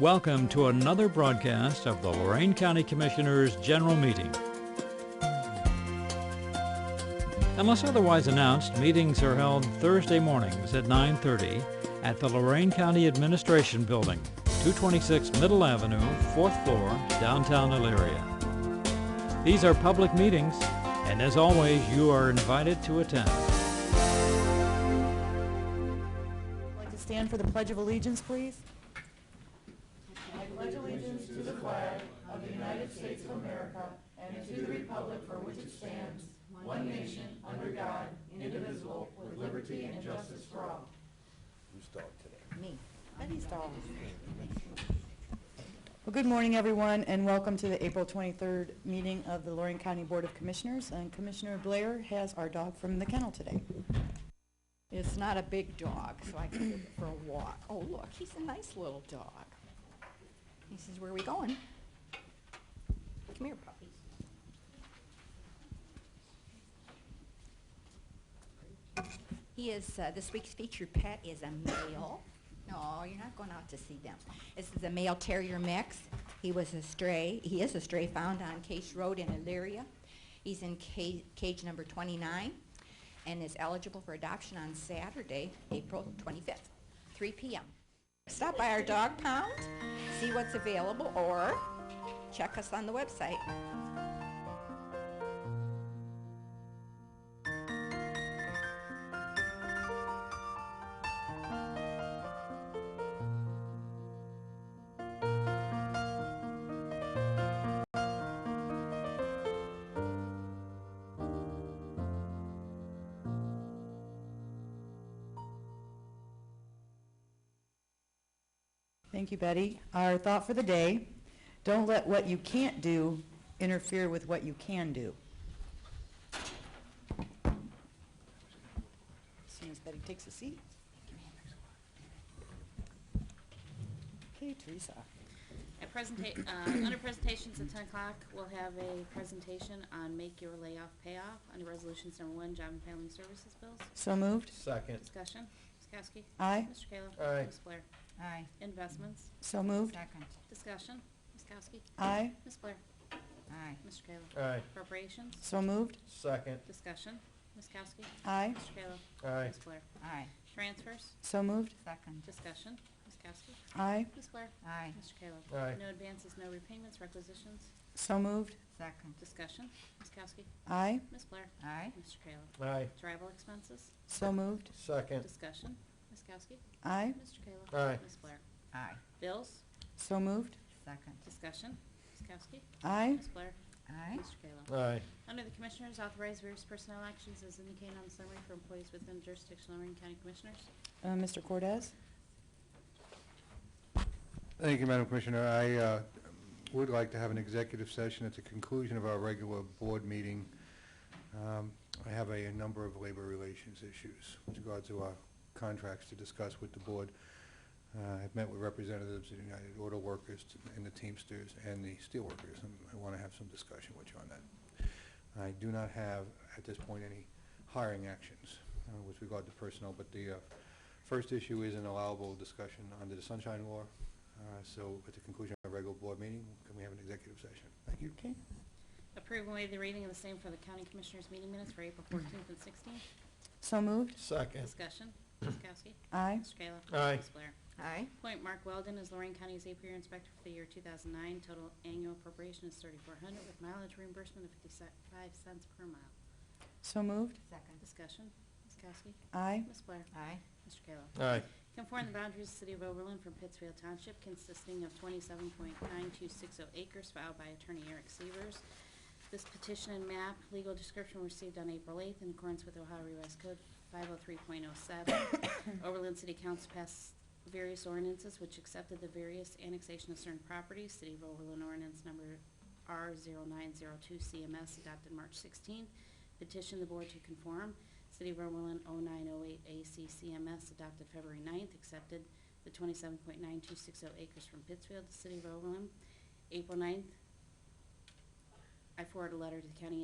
Welcome to another broadcast of the Lorraine County Commissioners' General Meeting. Unless otherwise announced, meetings are held Thursday mornings at 9:30 at the Lorraine County Administration Building, 226 Middle Avenue, 4th floor, downtown Elyria. These are public meetings, and as always, you are invited to attend. I'd like to stand for the Pledge of Allegiance, please. Me. Betty's dog. Well, good morning, everyone, and welcome to the April 23rd meeting of the Lorraine County Board of Commissioners. And Commissioner Blair has our dog from the kennel today. It's not a big dog, so I can take it for a walk. Oh, look, he's a nice little dog. He says, where are we going? Come here, puppy. He is, uh, this week's featured pet is a male. No, you're not going out to see them. This is a male terrier mix. He was a stray, he is a stray found on Case Road in Elyria. He's in ca- cage number 29 and is eligible for adoption on Saturday, April 25th, 3 p.m. Stop by our dog pound, see what's available, or check us on the website. Thank you, Betty. Our thought for the day, don't let what you can't do interfere with what you can do. As soon as Betty takes a seat. Okay, Teresa. At presenta- uh, under presentations at ten o'clock, we'll have a presentation on make your layoff payoff under resolutions number one, job and family services bills. So moved? Second, Discussion, Ms. Kowski. Aye. Mr. Kayla. Aye. Ms. Blair. Aye. Investments, So moved? Second. discussion, Ms. Kowski. Aye. Ms. Blair. Aye. Mr. Kayla. aye, Appropriations, So moved? second, discussion, Ms. Kowski. Aye. Mr. Kayla. aye, Ms. Blair. Aye. Transfers, So moved? Second. discussion, Ms. Kowski. Aye. Ms. Blair. Aye. Mr. Kayla. aye, No advances, no repayments, requisitions, So moved? Second. discussion, Ms. Kowski. Aye. Ms. Blair. Aye. Mr. Kayla. aye, Travel expenses, So moved? second, discussion, Ms. Kowski. Aye. Mr. Kayla. Aye. Ms. Blair. Aye. Bills, So moved? Second. discussion, Ms. Kowski. Aye. Ms. Blair. Aye. Mr. Kayla. aye, Under the Commissioners, authorize various personnel actions as indicated on the summary for employees within jurisdiction of Lorraine County Commissioners. Uh, Mr. Cordez? Thank you, Madam Commissioner. I uh, would like to have an executive session at the conclusion of our regular board meeting. Um, I have a number of labor relations issues with regard to our contracts to discuss with the board. Uh, I've met with representatives of the United Auto Workers and the Teamsters and the Steelworkers, and I want to have some discussion with you on that. I do not have, at this point, any hiring actions uh, with regard to personnel, but the uh, first issue is an allowable discussion under the Sunshine Law, uh, So at the conclusion of our regular board meeting, can we have an executive session? Thank you. Okay. Approve and waive the reading of the same for the County Commissioners meeting minutes for April 14th and 16th. So moved? second, Discussion, Ms. Kowski. Aye. Mr. Kayla. Aye. Ms. Blair. Aye. Appoint Mark Weldon as Lorraine County's apiary inspector for the year 2009. Total annual appropriation is 3,400 with mileage reimbursement of 55 cents per mile. So moved? Second. Discussion, Ms. Kowski. Aye. Ms. Blair. Aye. Mr. Kayla. aye, Conform the boundaries of the City of Oberlin from Pittsfield Township consisting of 27.92600 acres filed by Attorney Eric Severs. This petition and map legal description were received on April 8th in accordance with Ohio Revised Code 503.07. Oberlin City Council passed various ordinances which accepted the various annexation of certain properties. City of Oberlin ordinance number R0902 CMS adopted March 16th. Petition the board to conform. City of oh Oberlin 0908 ACCMS adopted February 9th, accepted the 27.9260 acres from Pittsfield to City of Oberlin. April 9th, I forwarded a letter to the county